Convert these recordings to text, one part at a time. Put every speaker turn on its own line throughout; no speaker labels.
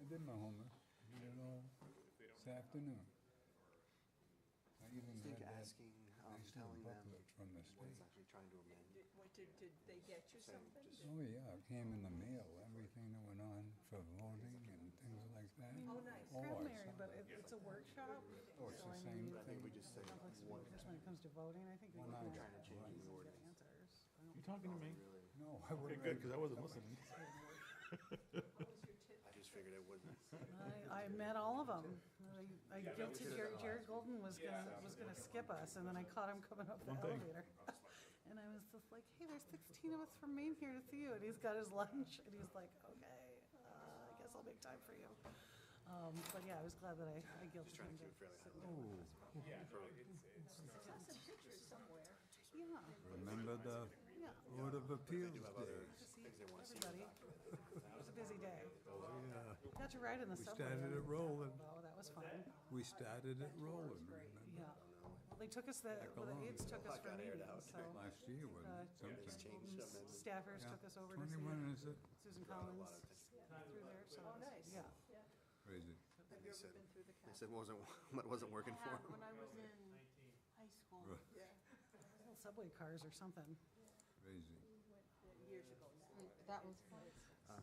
I did my homework. I did it all this afternoon. I even
think
had that
asking, um,
national
telling
booklet from
them
the
what it's
state.
actually trying to amend.
Did- What, did, did they get you
Same,
something?
just-
Oh, yeah, it came in the mail, everything that went on for voting and things like that.
Oh, nice.
Oh, I
Primary,
saw
but
that.
it- it's a workshop.
Oh, it's
so
the
I
same
mean,
thing. I think we
just say
Public speaking, just when it comes to voting, I think we
One
can
hour.
have
Trying to
change the
easy
ordinance.
answers. I don't-
You talking to me?
Really,
No, I
Okay,
wouldn't.
good, because I wasn't listening.
What was your tip?
I just figured it wouldn't.
I, I met all of them. I guilted Jared, Jared Golden was gonna, was gonna skip us, and then I caught him coming up the
One thing.
elevator. And I was just like, hey, there's sixteen of us from Maine here to see you, and he's got his lunch, and he's like, okay, uh, I guess I'll make time for you. Um, but yeah, I was glad that I, I guilted
Just trying
him
to keep it fairly
to.
high level.
Saw some pictures somewhere.
Yeah,
Remember the
yeah,
Board of Appeals
Other
day?
things they want to see.
everybody. It was a busy day. Got to ride in the subway.
started it rolling.
Oh, that was fun,
We started it rolling, remember?
yeah. Well, they took us, the, well,
along.
the aides took us for
Got aired out.
meetings, so. uh,
Last year, wasn't it?
It's
Something.
changed some and
Staffers
Yeah.
took us over to
Twenty-one, is
see
it?
Susan
lot
Collins
of
through there, so.
Oh, nice.
Yeah.
Crazy.
Have you ever been through the
they
cap?
said wasn't, what wasn't working for
had
them.
when I was in high school.
Right.
Yeah,
Little Subway cars or something.
Crazy.
years ago now.
That was fun.
Yeah,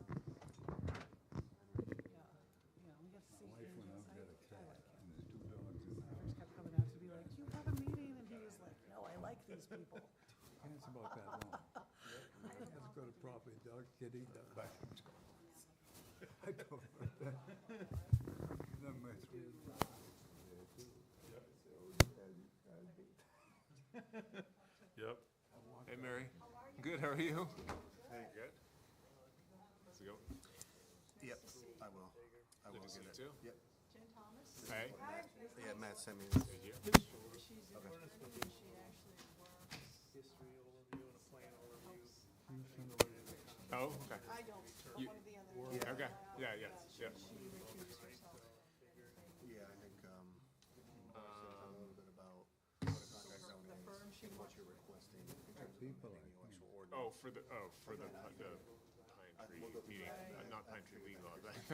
yeah, we got to see.
My wife went out,
him.
got a cat, and there's two dogs in there.
First kept coming out to be like, you have a meeting, and he was like, no, I like these people.
Yeah, It's about that long. That's got a property dog, kitty dog. I go for that. Then my three properties were there too.
Yep.
Hey, Mary. Good, how are you? Hey. Good? Let's go.
Yep, I will. I will
Good to see
get
you
it.
too.
Yep.
Jen Thomas?
Hey.
Yeah, Matt sent me.
She's an attorney, and she actually works.
history overview and a plan overview.
Oh, okay.
I don't, but one of the other.
Yeah, okay. Yeah, yeah, yeah.
She recused herself.
Yeah, I think, um, a little bit about what a contract zone
The
is
firm she
and what you're requesting in terms of
People, I
amending the actual
Oh,
ordinance.
for the, oh, for the, the pine tree meeting, uh, not pine tree legal. I was like-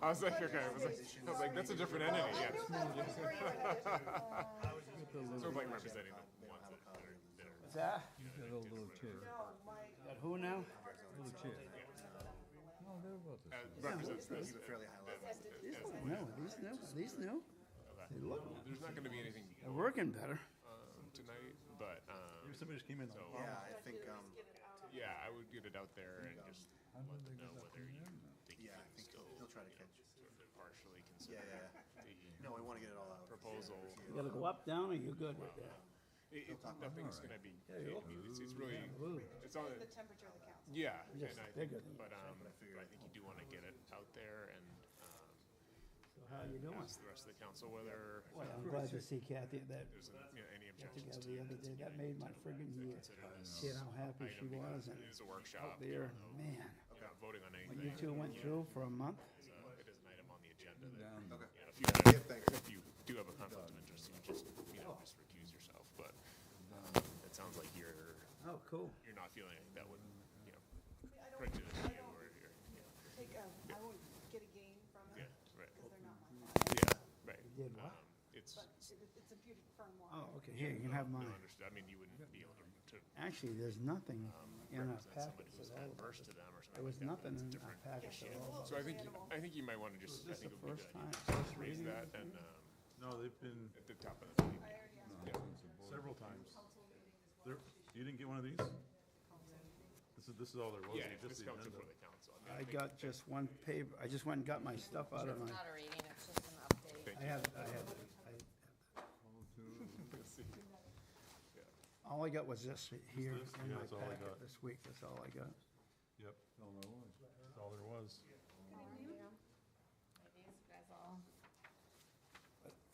I was like, okay, I was like, I was like, that's a different entity,
I
yeah.
knew that's what you were gonna
So like representing the ones that are, that are.
You got a little
do.
chair.
No, my,
Who now?
Little chair. No, they're about the
uh,
same.
Represents this.
Keep it fairly high level.
Oh, No, these new, these new.
There's not gonna be anything
They're working better.
um, tonight, but, um,
Somebody just came in. though.
Yeah, I think, um,
yeah, I would get it out there and just
How did
let
they
them know
get up
whether
in
you
there?
think you
yeah, I
can
think
still,
he'll try to catch.
sort of partially
Yeah,
consider
yeah.
the
No, we want to get it all out.
proposal.
You gotta go up, down, or you're good with that?
It, it, nothing's gonna be, it's, it's really, it's all,
the temperature of the council.
yeah, and
Yes,
I,
bigger than
but, um, but I think you do wanna get it out there and, um,
So how you doing?
ask the rest of the council whether
Well, I'm glad to see Kathy at that
there's, you know, any objections
together
to
the other day. That made my friggin' year.
consider this.
Seeing how happy she
item because
was
It
and
is a workshop,
there,
you're
man.
not voting on anything.
When you two went through for a month,
It's, uh, It is an item on the agenda that,
Down.
Okay.
you know, if you, have- if you do have a conflict of interest, you just, you know, just recuse yourself, but um, it sounds like you're,
oh, cool.
you're not feeling like that would, you know,
I don't,
prejudice
I
you
don't
or, or,
take, a- I won't get a gain from
yeah,
it,
right,
because they're not
Mm.
my client,
yeah, right.
did what?
Um, It's,
but it- it's a beauty firm wide.
Oh, okay, here, you can have
no,
mine.
understood, I mean, you wouldn't be able to, to
Actually, there's nothing in our
represent somebody
packets
who's
at all.
adverse to them or something.
There was
like that, but
nothing
it's
in our
different.
packets at all.
So I think, I think you might wanna just, I
this
think it
the
would be
first
good, idea
time?
to just
First
raise
reading?
that and, um,
No, they've been
at the top of the meeting.
I already asked
Yeah.
several times. They're- you didn't get one of these? This is, this is all there was,
Yeah, if
just
this
the
comes
agenda.
before the council. mean,
I
think-
got just one paper, I just went and got my stuff out of
It's
my,
not a reading, it's just an update.
Thank
I
you.
had, I had, I,
Let's see. Yeah.
All I got was this here
this?
in
Yeah,
my
that's all I
packet
got.
this week, that's all I got.
Yep,
All there was.
that's all there was.
Maybe it's guys all.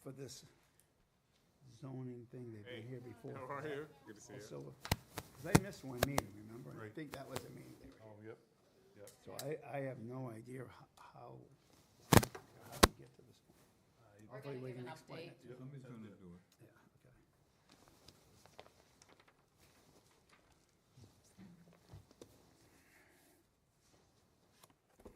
But For this zoning thing, they've
Hey,
been here before.
How are you? Good to see you.
Also, 'cause I missed one meeting, remember? And I
Right.
think that was a meeting they were
Oh, yep, yep.
So I, I have no idea h- how, how to get to this point.
We're gonna
we
give
can
an
explain
update.
Somebody's gonna do it.
Yeah.